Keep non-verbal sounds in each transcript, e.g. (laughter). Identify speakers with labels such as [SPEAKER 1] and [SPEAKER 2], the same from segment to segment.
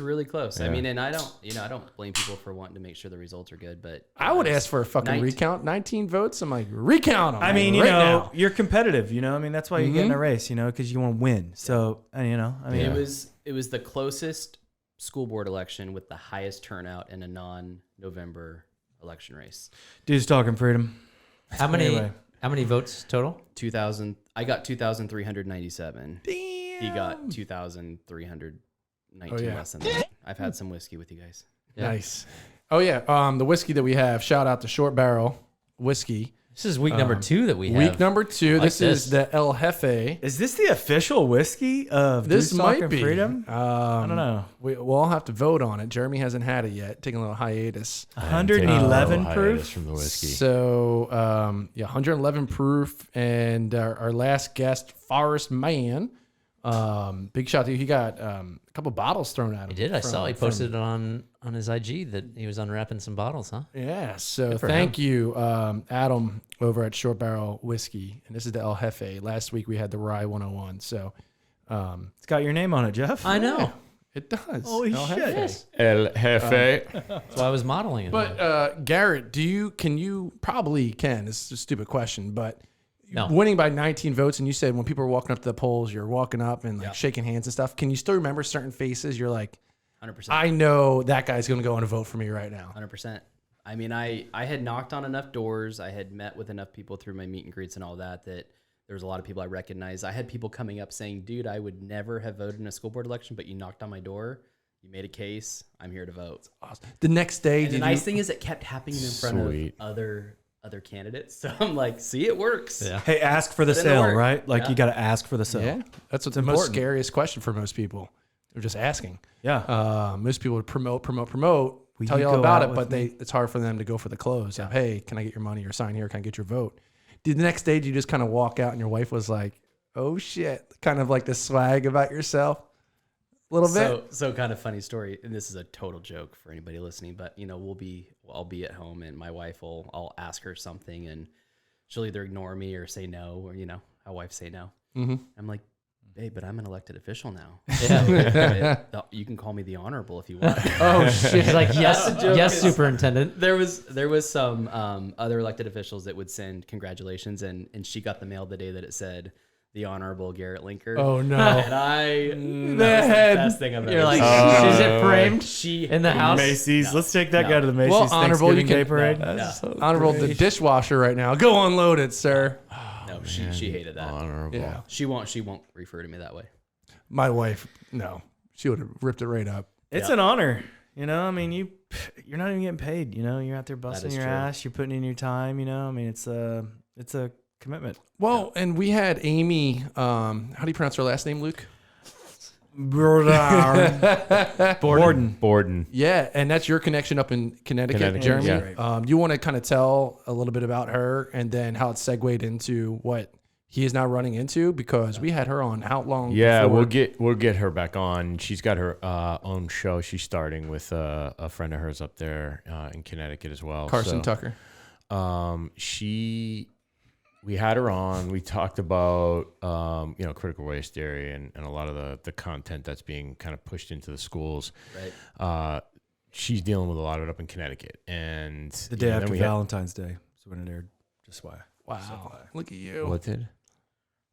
[SPEAKER 1] really close. I
[SPEAKER 2] Yeah.
[SPEAKER 1] mean, and I don't, you know, I don't blame people for wanting to make sure the results are good, but uh,
[SPEAKER 2] I would ask for a fucking
[SPEAKER 1] 19
[SPEAKER 2] recount. 19 votes. I'm like, recount 'em,
[SPEAKER 3] I mean, you
[SPEAKER 2] right
[SPEAKER 3] know,
[SPEAKER 2] now. Mm-hmm.
[SPEAKER 3] you're competitive. You know, I mean, that's why you get in a race. You know, because you want to win. So, and, you know, I mean,
[SPEAKER 1] it was it was the closest school board election with the highest turnout in a non-November election race.
[SPEAKER 3] dude's talking freedom.
[SPEAKER 4] How many?
[SPEAKER 3] Anyway.
[SPEAKER 4] How many votes total?
[SPEAKER 1] 2000 I got 2397. Damn. He got 2319
[SPEAKER 2] Oh, yeah.
[SPEAKER 1] less than that. I've had some whiskey with you guys.
[SPEAKER 2] Nice. Oh yeah. Um, the whiskey that we have. Shout out to Short Barrel Whiskey.
[SPEAKER 4] This is week number two that we have.
[SPEAKER 2] Week number two.
[SPEAKER 4] like
[SPEAKER 2] this,
[SPEAKER 4] this.
[SPEAKER 2] is the El Jefe.
[SPEAKER 3] Is this the official whiskey of
[SPEAKER 2] This
[SPEAKER 3] dude's
[SPEAKER 2] might
[SPEAKER 3] talking
[SPEAKER 2] be.
[SPEAKER 3] freedom?
[SPEAKER 2] Um,
[SPEAKER 3] I don't know.
[SPEAKER 2] We, we'll all have to vote on it. Jeremy hasn't had it yet. Taking a little hiatus.
[SPEAKER 5] I'm taking a
[SPEAKER 3] 111
[SPEAKER 5] little hiatus
[SPEAKER 3] proof.
[SPEAKER 5] from the whiskey.
[SPEAKER 2] So um, yeah, 111 proof, and our, our last guest, Forest Man. Um, big shout to you. He got um, a couple bottles thrown at him.
[SPEAKER 4] He did. I
[SPEAKER 2] from-
[SPEAKER 4] saw he
[SPEAKER 2] from-
[SPEAKER 4] posted it on on his IG that he was unwrapping some bottles, huh?
[SPEAKER 2] Yeah. So thank you, um, Adam, over at Short Barrel Whiskey, and this is the El Jefe. Last week we had the Rye 101. So um,
[SPEAKER 3] It's got your name on it, Jeff.
[SPEAKER 4] I know.
[SPEAKER 2] it does.
[SPEAKER 3] Holy
[SPEAKER 2] El
[SPEAKER 3] shit.
[SPEAKER 2] Jefe.
[SPEAKER 5] El Jefe.
[SPEAKER 4] That's why I was modeling it.
[SPEAKER 2] But uh, Garrett, do you can you probably can? It's a stupid question, but
[SPEAKER 4] No.
[SPEAKER 2] winning by 19 votes, and you said when people are walking up to the polls, you're walking up and like shaking hands and stuff. Can you still remember certain faces? You're like,
[SPEAKER 1] 100%.
[SPEAKER 2] I know that guy's going to go and vote for me right now.
[SPEAKER 1] Hundred percent. I mean, I I had knocked on enough doors. I had met with enough people through my meet and greets and all that that there was a lot of people I recognized. I had people coming up saying, "Dude, I would never have voted in a school board election, but you knocked on my door. You made a case. I'm here to vote."
[SPEAKER 2] Awesome. The next day,
[SPEAKER 1] And the
[SPEAKER 2] did
[SPEAKER 1] nice
[SPEAKER 2] you,
[SPEAKER 1] thing is, it kept happening in front
[SPEAKER 5] Sweet.
[SPEAKER 1] of other other candidates. (laughs) So I'm like, "See, it works."
[SPEAKER 4] Yeah.
[SPEAKER 3] Hey, ask for the
[SPEAKER 1] Put in the
[SPEAKER 3] sale,
[SPEAKER 1] work.
[SPEAKER 3] right? Like
[SPEAKER 1] Yeah.
[SPEAKER 3] you got to ask for the sale.
[SPEAKER 2] yeah, that's what's the most
[SPEAKER 3] important.
[SPEAKER 2] scariest question for most people. They're just asking.
[SPEAKER 3] Yeah.
[SPEAKER 2] Uh, most people would promote, promote, promote,
[SPEAKER 3] Will
[SPEAKER 2] tell
[SPEAKER 3] you
[SPEAKER 2] you all
[SPEAKER 3] go
[SPEAKER 2] about
[SPEAKER 3] out
[SPEAKER 2] it, but
[SPEAKER 3] with me?
[SPEAKER 2] they it's hard for them to go for the close. Of, hey, can I get your money or sign here? Can I get your vote? Did the next day you just kind of walk out and your wife was like, oh shit, kind of like the swag about yourself a little
[SPEAKER 1] So,
[SPEAKER 2] bit?
[SPEAKER 1] so kind of funny story, and this is a total joke for anybody listening. But you know, we'll be, I'll be at home, and my wife will, I'll ask her something, and she'll either ignore me or say no, or you know, how wives say no.
[SPEAKER 2] Mhm.
[SPEAKER 1] I'm like, babe, but I'm an elected official
[SPEAKER 2] (laughs)
[SPEAKER 1] now. Yeah, you can call me the honorable if you want.
[SPEAKER 2] Oh shit.
[SPEAKER 4] He's like, yes, yes, superintendent.
[SPEAKER 1] there was there was some um, other elected officials that would send congratulations, and and she got the mail the day that it said the honorable Garrett Linker.
[SPEAKER 2] oh
[SPEAKER 1] and
[SPEAKER 2] no.
[SPEAKER 1] I
[SPEAKER 2] The
[SPEAKER 1] that was the
[SPEAKER 2] head.
[SPEAKER 1] best thing I've ever.
[SPEAKER 4] Mm. You're like,
[SPEAKER 1] seen.
[SPEAKER 5] Oh.
[SPEAKER 4] is it framed
[SPEAKER 1] she
[SPEAKER 4] in the house?
[SPEAKER 3] Macy's. Let's take that
[SPEAKER 1] No.
[SPEAKER 3] guy to the Macy's
[SPEAKER 2] Well, honorable,
[SPEAKER 3] Thanksgiving
[SPEAKER 2] you can-
[SPEAKER 3] Day parade.
[SPEAKER 1] no,
[SPEAKER 2] (laughs) Honorable the dishwasher right now. Go unload it, sir.
[SPEAKER 1] No, she, she hated that.
[SPEAKER 5] Honorable.
[SPEAKER 2] Yeah.
[SPEAKER 1] She won't she won't refer to me that way.
[SPEAKER 2] My wife, no. She would have ripped it right up.
[SPEAKER 3] It's an honor. You know, I mean, you (sighs) you're not even getting paid. You know, you're out there busting
[SPEAKER 1] is
[SPEAKER 3] your
[SPEAKER 1] true.
[SPEAKER 3] ass. You're putting in your time. You know, I mean, it's a it's a commitment.
[SPEAKER 2] Well, and we had Amy, um, how do you pronounce her last name, Luke?
[SPEAKER 3] (laughs) Borden.
[SPEAKER 5] Borden.
[SPEAKER 2] Yeah, and that's your connection up in Connecticut,
[SPEAKER 5] Connecticut,
[SPEAKER 2] Jeremy.
[SPEAKER 5] yeah. Right.
[SPEAKER 2] Um, you want to kind of tell a little bit about her and then how it segued into what he is now running into because we had her on how long?
[SPEAKER 5] Yeah,
[SPEAKER 2] before?
[SPEAKER 5] we'll get we'll get her back on. She's got her uh, own show. She's starting with uh, a friend of hers up there uh, in Connecticut as well.
[SPEAKER 2] Carson
[SPEAKER 5] So,
[SPEAKER 2] Tucker.
[SPEAKER 5] Um, she, we had her on. We talked about um, you know critical race theory and, and a lot of the the content that's being kind of pushed into the schools.
[SPEAKER 1] Right.
[SPEAKER 5] Uh, she's dealing with a lot of it up in Connecticut, and
[SPEAKER 3] the day
[SPEAKER 5] you know, then
[SPEAKER 3] after
[SPEAKER 5] we had-
[SPEAKER 3] Valentine's Day is when it aired. Just why
[SPEAKER 2] Wow, look at you.
[SPEAKER 5] What did?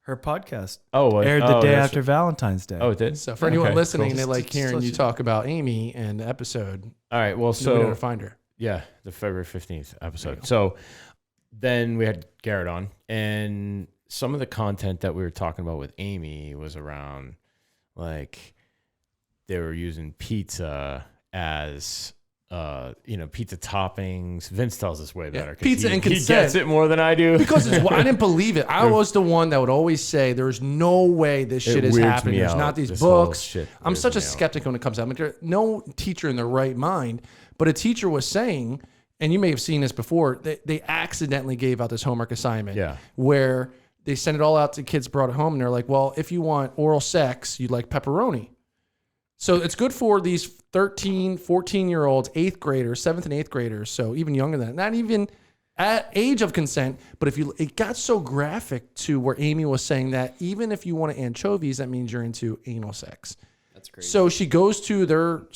[SPEAKER 3] her podcast
[SPEAKER 5] Oh, well,
[SPEAKER 3] aired the
[SPEAKER 5] oh,
[SPEAKER 3] day
[SPEAKER 5] that's-
[SPEAKER 3] after Valentine's Day.
[SPEAKER 5] Oh, it did.
[SPEAKER 2] So for anyone
[SPEAKER 5] Okay,
[SPEAKER 2] listening,
[SPEAKER 5] cool.
[SPEAKER 2] they like hearing
[SPEAKER 3] Such
[SPEAKER 2] you
[SPEAKER 3] a-
[SPEAKER 2] talk about Amy and the episode.
[SPEAKER 5] All right. Well,
[SPEAKER 2] So to
[SPEAKER 5] so
[SPEAKER 2] find her.
[SPEAKER 5] Yeah, the February 15th episode. So then we had Garrett on, and some of the content that we were talking about with Amy was around like they were using pizza as. Uh, you know, pizza toppings. Vince tells us way better. 'cause
[SPEAKER 2] pizza
[SPEAKER 5] he,
[SPEAKER 2] and
[SPEAKER 5] He
[SPEAKER 2] consent.
[SPEAKER 5] gets it more than I do.
[SPEAKER 2] Because it's, I didn't believe it.
[SPEAKER 5] (laughs)
[SPEAKER 2] I was the one that would always say, "There's no way this shit is
[SPEAKER 5] weirds
[SPEAKER 2] happening.
[SPEAKER 5] me
[SPEAKER 2] There's
[SPEAKER 5] out.
[SPEAKER 2] not these
[SPEAKER 5] This whole
[SPEAKER 2] books."
[SPEAKER 5] shit
[SPEAKER 2] I'm
[SPEAKER 5] weirds
[SPEAKER 2] such a
[SPEAKER 5] me out.
[SPEAKER 2] skeptic when it comes out. Like, there- no teacher in their right mind, but a teacher was saying, and you may have seen this before. They, they accidentally gave out this homework assignment.
[SPEAKER 5] Yeah.
[SPEAKER 2] Where they sent it all out to kids, brought it home, and they're like, "Well, if you want oral sex, you'd like pepperoni." So it's good for these 13, 14 year olds, eighth graders, seventh and eighth graders. So even younger than that, not even at age of consent. But if you, it got so graphic to where Amy was saying that even if you want to anchovies, that means you're into anal sex.
[SPEAKER 1] That's great.
[SPEAKER 2] So she goes to their